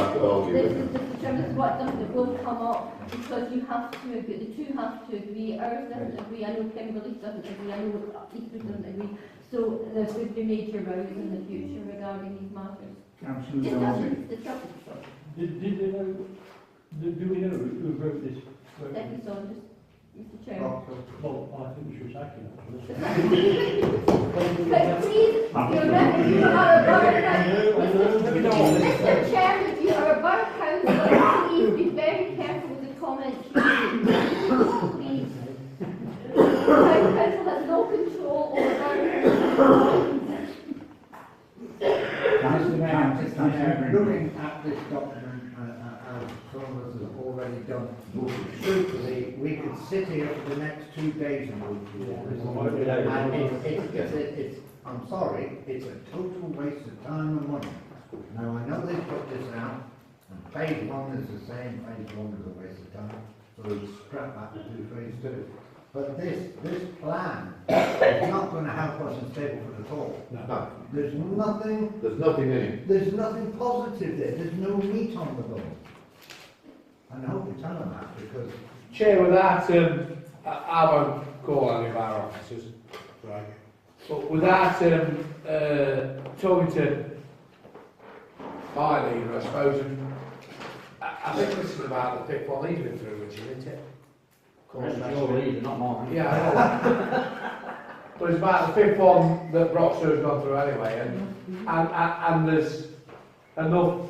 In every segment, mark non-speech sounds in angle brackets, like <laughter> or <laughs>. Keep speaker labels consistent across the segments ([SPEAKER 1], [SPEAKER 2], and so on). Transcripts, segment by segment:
[SPEAKER 1] along
[SPEAKER 2] The,
[SPEAKER 1] with it.
[SPEAKER 2] the, the procurement work done that will come up because you have to agree, the two have to agree, ours doesn't agree, I know Kimberley doesn't agree, I know Eastwood doesn't agree. So there would be major rows in the future regarding these matters.
[SPEAKER 3] Councillor
[SPEAKER 2] Just
[SPEAKER 3] Dawson.
[SPEAKER 2] as the trouble,
[SPEAKER 4] Did, did they know, do, do we know who wrote this? wrote this?
[SPEAKER 2] Deputy Saunders, Mr Chair.
[SPEAKER 3] Rockhill.
[SPEAKER 4] Well, I think we should sack him, actually.
[SPEAKER 2] <laughs> But please, you're right, you are a borough council. Mr. Mr. Chairman, if you are a borough councillor, please be very careful with the comments you make. Please. The borough council has no control over borough council.
[SPEAKER 3] Councillor Brown,
[SPEAKER 5] Mr. Mayor,
[SPEAKER 3] Councillor Green.
[SPEAKER 5] looking at this document, uh, uh, as Thomas has already done, truthfully, we could sit here for the next two days and go through all this. And it's, it's, it's, a- it's, I'm sorry, it's a total waste of time and money. Now, I know they put this out, and phase one is the same, phase one is a waste of time, so we scrap that and do phase two. But this, this plan is not gonna help us in Stapleford at all.
[SPEAKER 1] No,
[SPEAKER 5] There's nothing
[SPEAKER 1] there's nothing in it.
[SPEAKER 5] there's nothing positive there, there's no meat on the bone. And I hope you tell them that, because
[SPEAKER 6] Chair, with that, um, I, I won't call any of our officers, right? But with that, um, uh, talking to my leader, I suppose, and I, I think this is about the fifth one he's been through, which isn't it?
[SPEAKER 4] not mine.
[SPEAKER 6] Yeah, I know. <laughs> But it's about the fifth one that Roxburgh's gone through anyway, and, and, and, and there's enough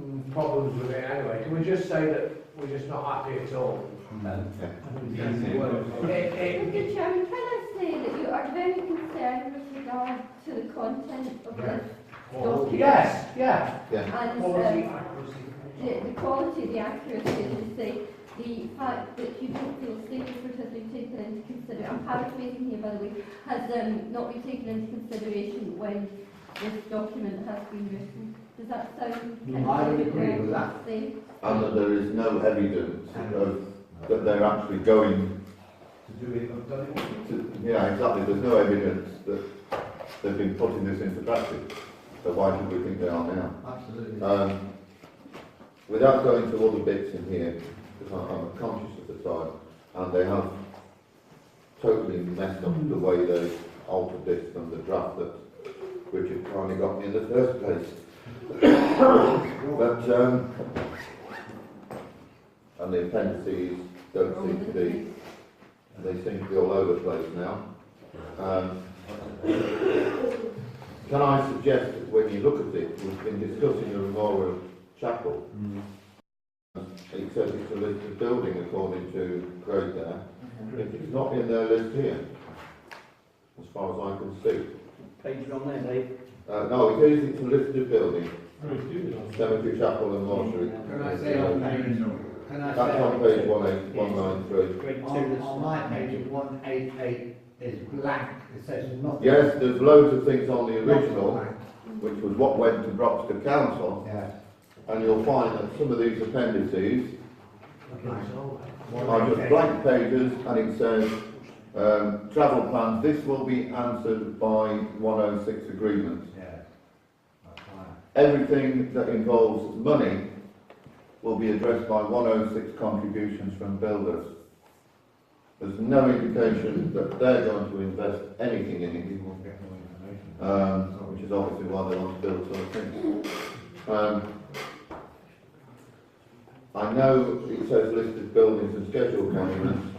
[SPEAKER 6] mm, problems with it anyway. Can we just say that we're just not happy at all? And- It, it,
[SPEAKER 2] Mr. Chairman, can I say that you are very concerned with regard to the content of this document?
[SPEAKER 6] Yes, yeah.
[SPEAKER 1] Yeah,
[SPEAKER 2] And um, the, the quality, the accuracy, as you say, the fact that you don't feel Stapleford has been taken into consideration, I'm paraphrasing here by the way, has um, not been taken into consideration when this document has been written. Does that sound?
[SPEAKER 5] I would agree with that.
[SPEAKER 2] Say,
[SPEAKER 1] and that there is no evidence of, that they're actually going
[SPEAKER 5] to do it, I've done it.
[SPEAKER 1] to, yeah, exactly, there's no evidence that they've been putting this into practice. So why should we think they are now?
[SPEAKER 5] Absolutely.
[SPEAKER 1] Um, without going through all the bits in here, because I- I'm conscious of the time, and they have totally messed up the way they altered this from the draft that Richard kindly got me in the first place. <coughs> But, um, and the appendices don't seem to be, they seem to be all over the place now. Um, can I suggest that when you look at it, we've been discussing the Memorial Chapel. It says it's a listed building according to code there. If it's not in their list here, as far as I can see.
[SPEAKER 3] Page on there, Dave.
[SPEAKER 1] Uh, no, it is, it's a listed building,
[SPEAKER 4] Bruce, do you know?
[SPEAKER 1] Cemetery Chapel and Mortuary.
[SPEAKER 5] Can I say on page, can I
[SPEAKER 1] That's
[SPEAKER 5] say
[SPEAKER 1] on
[SPEAKER 5] on
[SPEAKER 1] page
[SPEAKER 5] page,
[SPEAKER 1] one eight, one nine three.
[SPEAKER 5] on, on my page, one eight eight is blank, it says nothing.
[SPEAKER 1] Yes, there's loads of things on the
[SPEAKER 5] Nothing
[SPEAKER 1] original,
[SPEAKER 5] blank.
[SPEAKER 1] which was what went to Broxton Council,
[SPEAKER 5] Yeah.
[SPEAKER 1] and you'll find that some of these appendices
[SPEAKER 5] One
[SPEAKER 1] are just
[SPEAKER 5] eight eight.
[SPEAKER 1] blank pages, and it says, um, travel plans, this will be answered by one oh six agreement.
[SPEAKER 5] Yeah. That's fine.
[SPEAKER 1] Everything that involves money will be addressed by 106 contributions from builders. There's no indication that they're going to invest anything
[SPEAKER 5] We
[SPEAKER 1] in
[SPEAKER 5] won't get more information.
[SPEAKER 1] it, um, which is obviously why they want to build sort of thing. Um, I know it says listed buildings and scheduled monuments.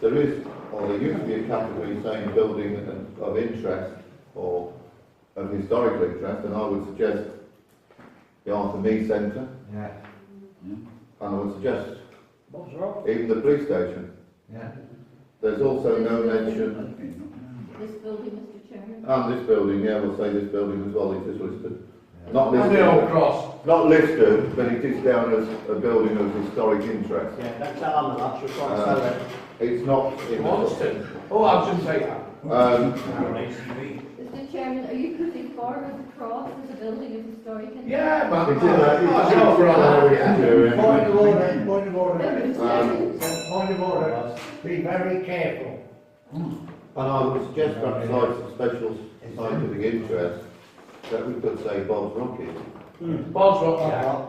[SPEAKER 1] There is, or there used to be a category saying building of- of interest or of historical interest, and I would suggest the Arthur Mead Centre,
[SPEAKER 5] Yeah,
[SPEAKER 1] and I would suggest
[SPEAKER 4] What's wrong?
[SPEAKER 1] even the police station.
[SPEAKER 5] yeah.
[SPEAKER 1] There's also no mention,
[SPEAKER 2] This building, Mr. Chairman.
[SPEAKER 1] and this building, yeah, we'll say this building as well, it is listed.
[SPEAKER 5] yeah.
[SPEAKER 1] Not
[SPEAKER 6] And the old
[SPEAKER 1] listed,
[SPEAKER 6] cross.
[SPEAKER 1] not listed, but it is down as a building of historic interest.
[SPEAKER 3] Yeah, that's that on the last, you're trying to
[SPEAKER 1] Uh,
[SPEAKER 3] sell it.
[SPEAKER 1] It's not
[SPEAKER 6] He
[SPEAKER 1] in
[SPEAKER 6] wants
[SPEAKER 1] the...
[SPEAKER 6] to. Oh, I shouldn't say that.
[SPEAKER 1] Um,
[SPEAKER 2] Mr. Chairman, are you putting forward the cross as a building of historic? interest?
[SPEAKER 6] Yeah, man. Oh,
[SPEAKER 1] it is, uh,
[SPEAKER 6] That's
[SPEAKER 3] Oh,
[SPEAKER 6] not for all, yeah.
[SPEAKER 5] Point of
[SPEAKER 1] it's-
[SPEAKER 5] order, point of order,
[SPEAKER 2] Mr. Chairman,
[SPEAKER 5] Um, point of order, be very careful.
[SPEAKER 1] And I would suggest perhaps like some special scientific interest, that we could say Bob's Rocket.
[SPEAKER 6] Bob's rock, yeah.